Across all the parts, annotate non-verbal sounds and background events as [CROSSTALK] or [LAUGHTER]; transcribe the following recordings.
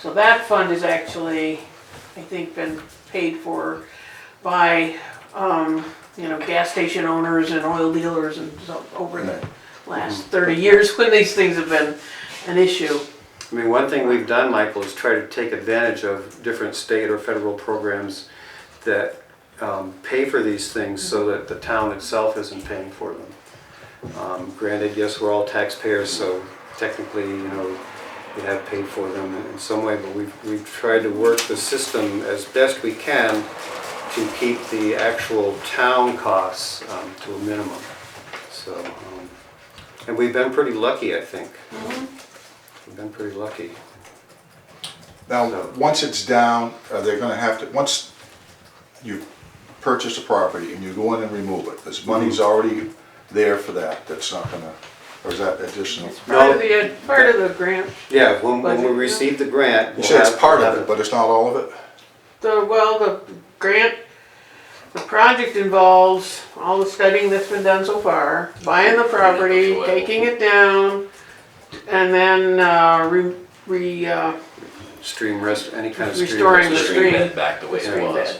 So that fund is actually, I think, been paid for by, um, you know, gas station owners and oil dealers and so over the last thirty years [LAUGHS] when these things have been an issue. I mean, one thing we've done, Michael, is try to take advantage of different state or federal programs that um, pay for these things so that the town itself isn't paying for them. Um, Granted, yes, we're all taxpayers, so technically, you know, we have paid for them in some way, but we've, we've tried to work the system as best we can to keep the actual town costs um, to a minimum. So, um, and we've been pretty lucky, I think. We've been pretty lucky. Now, So- once it's down, are they gonna have to, once you purchase a property and you go in and remove it, this Mm-hmm. money's already there for that, that's not gonna, or is that additional? It's part of the, part of the grant, Yeah, when, when we Budget. receive the grant. You we'll said it's have- part we'll of have it, but it's not all of it? the, well, the grant, the project involves all the studying that's been done so far, buying the property, taking it down, and then, uh, re, re, uh, Stream rest, any kind of stream. Restoring rest- the stream stream. bed back the way it stream was.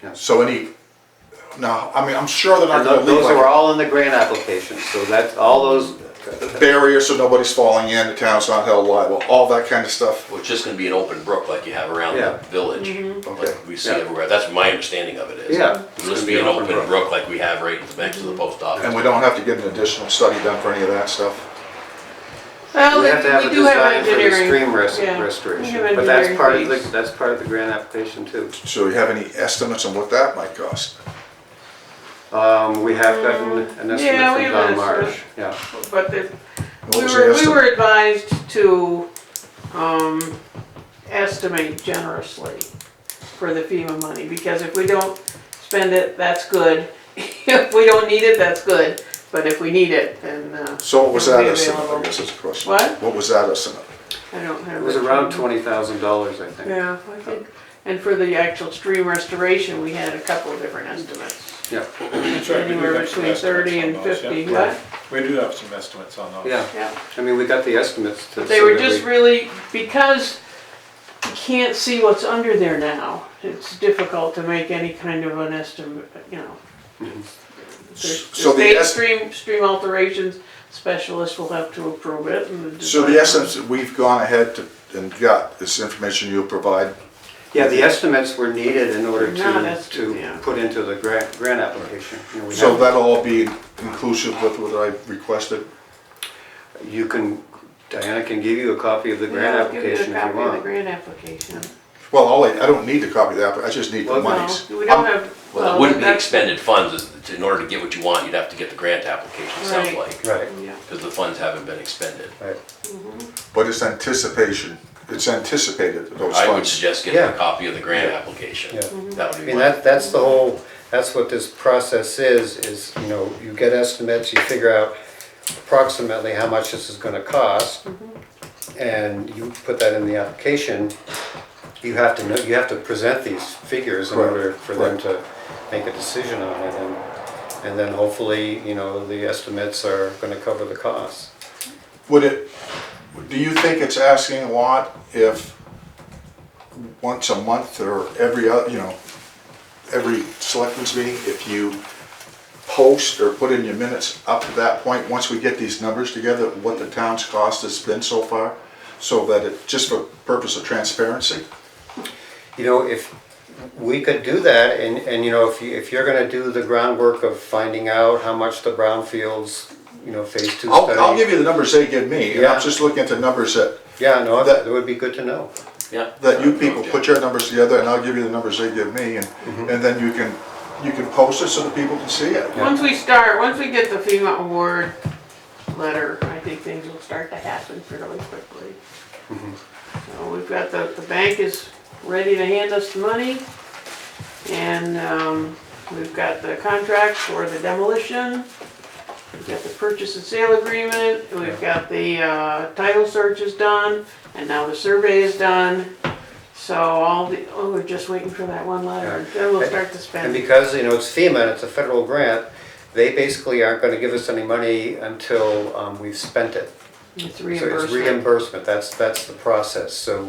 bed. So any, no, I mean, I'm sure they're not And gonna tho- leave those are like all in the grant application, so that's, all those, a barrier so nobody's falling in, the town's not held liable, all that kind of stuff. Well, it's just gonna be an open brook like you have around Yeah. the village, Mm-hmm. Okay. like we see Yeah. everywhere. That's my understanding of it is. Yeah. It'll just be an open brook like we have right next to Mm-hmm. the post And office. we don't have to get an additional study done for any of that stuff? well, we have to have a we do have design for the engineering. stream rest- yeah. We restoration. have But that's engineering part of the, fees. that's part of the grant application too. So you have any estimates on what that might cost? Um, we have gotten an Mm, yeah, we estimate from have Don an Marsh, estimate. yeah. But the, What we was the were, we estimate? were advised to, um, estimate generously for the FEMA money, because if we don't spend it, that's good. [LAUGHS] If we don't need it, that's good, but if we need it, then, uh, So what was It'll that be estimate, I available. guess is the question. What? What was that estimate? I don't have. It was it. around twenty thousand dollars, I think. Yeah, I think, and for the actual stream restoration, we had a couple of different estimates, Yeah, That's right, we do anywhere have some between thirty and estimates on those, fifty, yeah. what? We do have some estimates on those. yeah, Yeah. I mean, we got the estimates to. They so were that just we- really, because you can't see what's under there now, it's difficult to make any kind of an estimate, you know. There's- So the state es- Stream, stream alterations specialist will have to approve it and. So the design- estimates that we've gone ahead to- and got, this information you'll provide, Yeah, the estimates were needed in order Not to, estimates, yeah. to put into the grant, grant application. You know, we so have- that'll all be inclusive with what I requested? You can, Diana can give you a copy of the Yeah, grant I'll give you a application if you copy of the want. grant application. Well, all I, I don't need to copy that, but I just need the Well, no, No, monies. we don't I'm- have. Well, it wouldn't be that's- expended funds, is- in order to get what you want, you'd have to get the grant application, it sounds Right. like. Right, Yeah, Because the funds haven't been expended. right. But it's anticipation, it's anticipated that those I would funds. suggest getting Yeah. a copy of the grant Yeah. application. Yeah. That I would be mean, my, that, that's the whole, that's what this process is, is, you know, you get estimates, you figure out approximately how much this is gonna cost, Mm-hmm. and you put that in the application, you have to know, you have to present these figures in Correct, order for them correct. to make a decision on it, and, and then hopefully, you know, the estimates are gonna cover the costs. Would it, do you think it's asking a lot if once a month or every, oth- you know, every selectmen's meeting, if you post or put in your minutes up to that point, once we get these numbers together, what the town's cost has been so far? So that it, just for purpose of transparency? you know, if, we could do that, and, and, you know, if you, if you're gonna do the groundwork of finding out how much the brownfields, you know, phase two study. I'll, I'll give you the numbers they give me, and Yeah. I'm just looking at the numbers that, Yeah, no, that- that would be good to know. yeah. that you No people objection. put your numbers together, and I'll give you the numbers they give me, and, and then you can, you can post it so that people can see it. once we start, once we get the FEMA award letter, I think things will start to happen fairly quickly. Mm-hmm. So we've got the, the bank is ready to hand us the money. And, um, we've got the contract for the demolition. We've got the purchase and sale agreement, and we've got the, uh, title search is done, and now the survey is done. So all the, oh, we're just waiting for that one letter, and then we'll start to And spend. because, you know, it's FEMA, and it's a federal grant, they basically aren't gonna give us any money until, um, we've spent it. It's So it's reimbursement. reimbursement, that's, that's the process, so